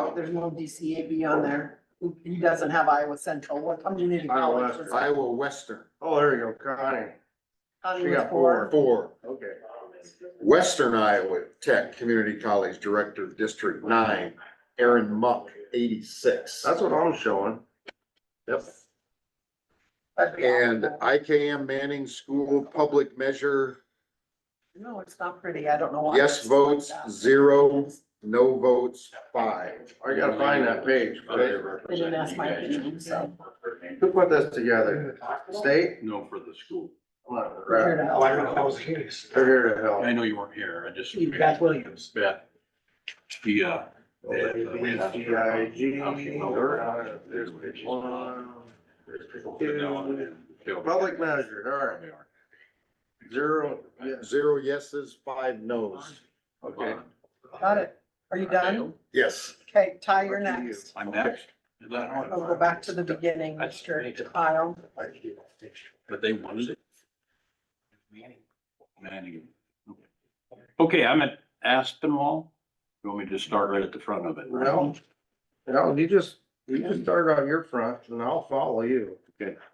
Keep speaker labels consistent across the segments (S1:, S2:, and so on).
S1: out, there's no DCAB on there. He doesn't have Iowa Central, what community
S2: Iowa
S1: college
S2: Western.
S1: was it?
S3: Iowa Western,
S2: Oh, there you go, Connie.
S1: Connie
S2: she
S1: was
S2: got four.
S3: four,
S2: Okay.
S3: Western Iowa Tech Community College Director, District Nine, Aaron Muck, eighty-six.
S2: That's what I'm showing. Yep.
S1: That'd be
S3: And
S1: awful.
S3: IKM Manning School Public Measure,
S1: No, it's not pretty, I don't know why.
S3: yes
S1: it's like
S3: votes,
S1: that.
S3: zero, no votes, five.
S2: I gotta find that page. okay?
S1: They didn't ask my opinion, so.
S2: Who put this together? State?
S4: No, for the school.
S2: Come on,
S1: here
S2: right.
S1: it
S5: Oh,
S1: out.
S5: I don't know, I was curious.
S2: They're here to
S4: I
S2: help.
S4: know you weren't here, I just.
S5: Beth Williams.
S4: Beth. She, uh. had, uh,
S2: G I G. There's page one. Public measure, all right. Zero, yes,
S3: Zero yeses, five nos.
S2: okay.
S1: Got it. Are you done?
S3: Yes.
S1: Okay, Ty, you're
S2: Back to you.
S1: next.
S4: I'm next. Is that hard?
S1: I'll go back to the beginning,
S4: That's-
S1: Mr. Kyle.
S4: But they wanted it. Manning. Okay. Okay, I'm at Aspinwall. You want me to just start right at the front of it?
S2: Well, no, you just, you just start on your front and I'll follow you.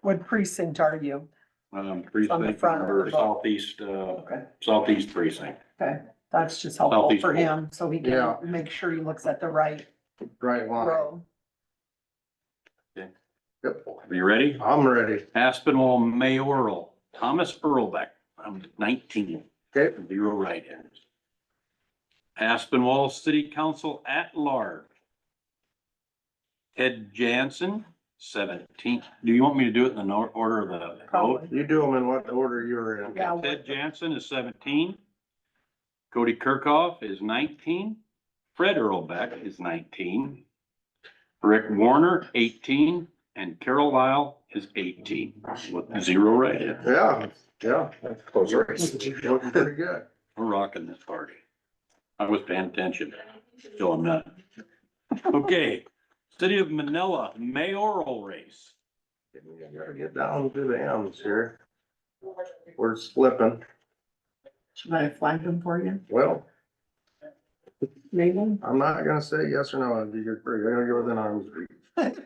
S1: What precinct are you?
S4: Um,
S1: On the
S4: precinct,
S1: front.
S4: number southeast, uh,
S1: Okay.
S4: southeast precinct.
S1: Okay, that's just helpful
S4: Southeast
S1: for
S4: corner.
S1: him, so he can
S2: Yeah.
S1: make sure he looks at the right
S2: Right line.
S1: row.
S2: Yep.
S4: Are you ready?
S2: I'm ready.
S4: Aspinwall mayoral, Thomas Earlbeck, I'm nineteen.
S2: Okay.
S4: Zero write-ins. Aspinwall City Council at large. Ted Jansen, seventeen. Do you want me to do it in the nor- order of the vote?
S1: Probably.
S2: You do them in what order you're in.
S1: Yeah.
S4: Okay, Ted Jansen is seventeen. Cody Kirkhoff is nineteen. Fred Earlbeck is nineteen. Rick Warner, eighteen, and Carol Lyle is eighteen, with zero write-ins.
S2: Yeah, yeah.
S3: Close race.
S2: Looking pretty good.
S4: We're rocking this party. I was paying attention, so I'm not. Okay, City of Manila mayoral race.
S2: Gotta get down to the M's here. We're slipping.
S1: Should I flag them for you,
S2: Well,
S1: maybe?
S2: I'm not gonna say yes or no. You're free. You're gonna go within arms reach. Go ahead.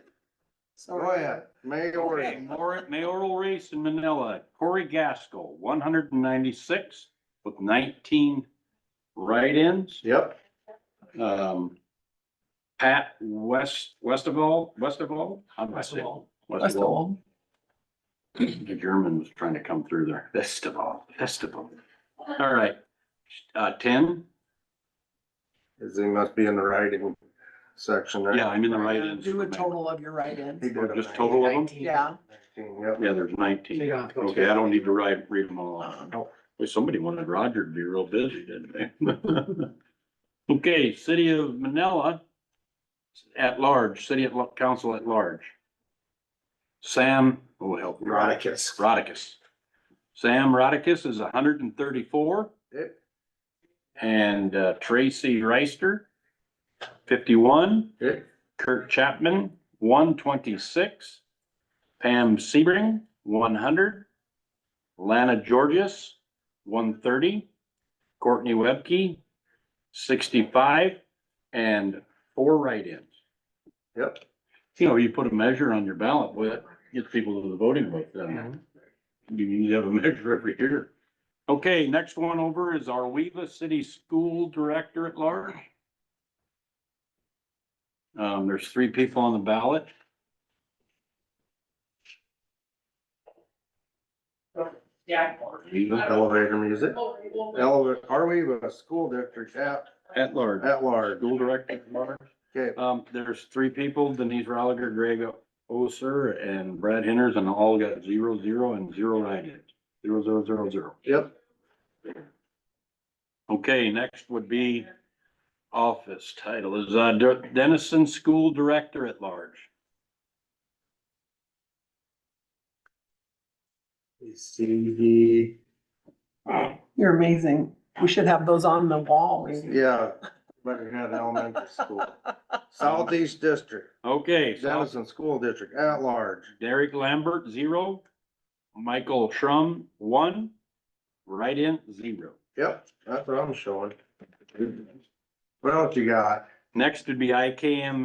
S4: Okay,
S2: Mayor,
S4: mayor- Mayoral race in Manila, Corey Gaskell, one hundred and ninety-six with nineteen write-ins.
S2: yep,
S4: Um, Pat West, West of all, West of all? I'm West of all.
S1: That's cool.
S4: The German was trying to come through there. Festival, festival. All right. Uh, ten?
S2: Is he must be in the writing section there.
S4: Yeah, I'm in the right end.
S1: Do a total of your
S2: He
S1: write-ins.
S2: did a
S4: Just total of them?
S1: Yeah.
S2: Yep,
S4: Yeah, there's nineteen.
S5: Yeah.
S4: Okay, I don't need to write, read them all out.
S2: No.
S4: Boy, somebody wanted Roger to be real busy, didn't they? Okay, city of Manila at large, city at, lo- council at large. Sam, oh, help. me.
S5: Rodakis.
S4: Rodakis. Sam Rodakis is hundred and thirty-four.
S2: Yep.
S4: And uh, Tracy Reister, fifty-one.
S2: Yep.
S4: Kirk Chapman, one twenty-six. Pam Sebring, one hundred. Lana Georges, one thirty. Courtney Webke, sixty-five, and four write-ins.
S2: yep.
S4: You know, you put a measure on your ballot, boy, that gets people to the voting booth, doesn't it? You need to have a measure every year. Okay, next one over is our Weaver City School Director at Large. Um, there's three people on the ballot.
S6: Yeah.
S2: Elevator music. Elevator, are we with a school district at,
S4: At large.
S2: at large?
S4: School Director at Large.
S2: Okay,
S4: Um, there's three people, Denise Rolliger, Greg Oser, and Brad Henners, and all got zero, zero, and zero write-ins. Zero, zero, zero, zero.
S2: yep,
S4: Okay, next would be office title is uh, Der- Dennison School Director at Large.
S2: CD,
S1: You're amazing. We should have those on the wall. maybe.
S2: yeah, better have elementary school. Southeast District,
S4: Okay, so
S2: Dennison School District at large.
S4: Derek Lambert, zero. Michael Trum, one. Write-in, zero.
S2: Yep, that's what I'm showing. What else you got?
S4: Next would be IKM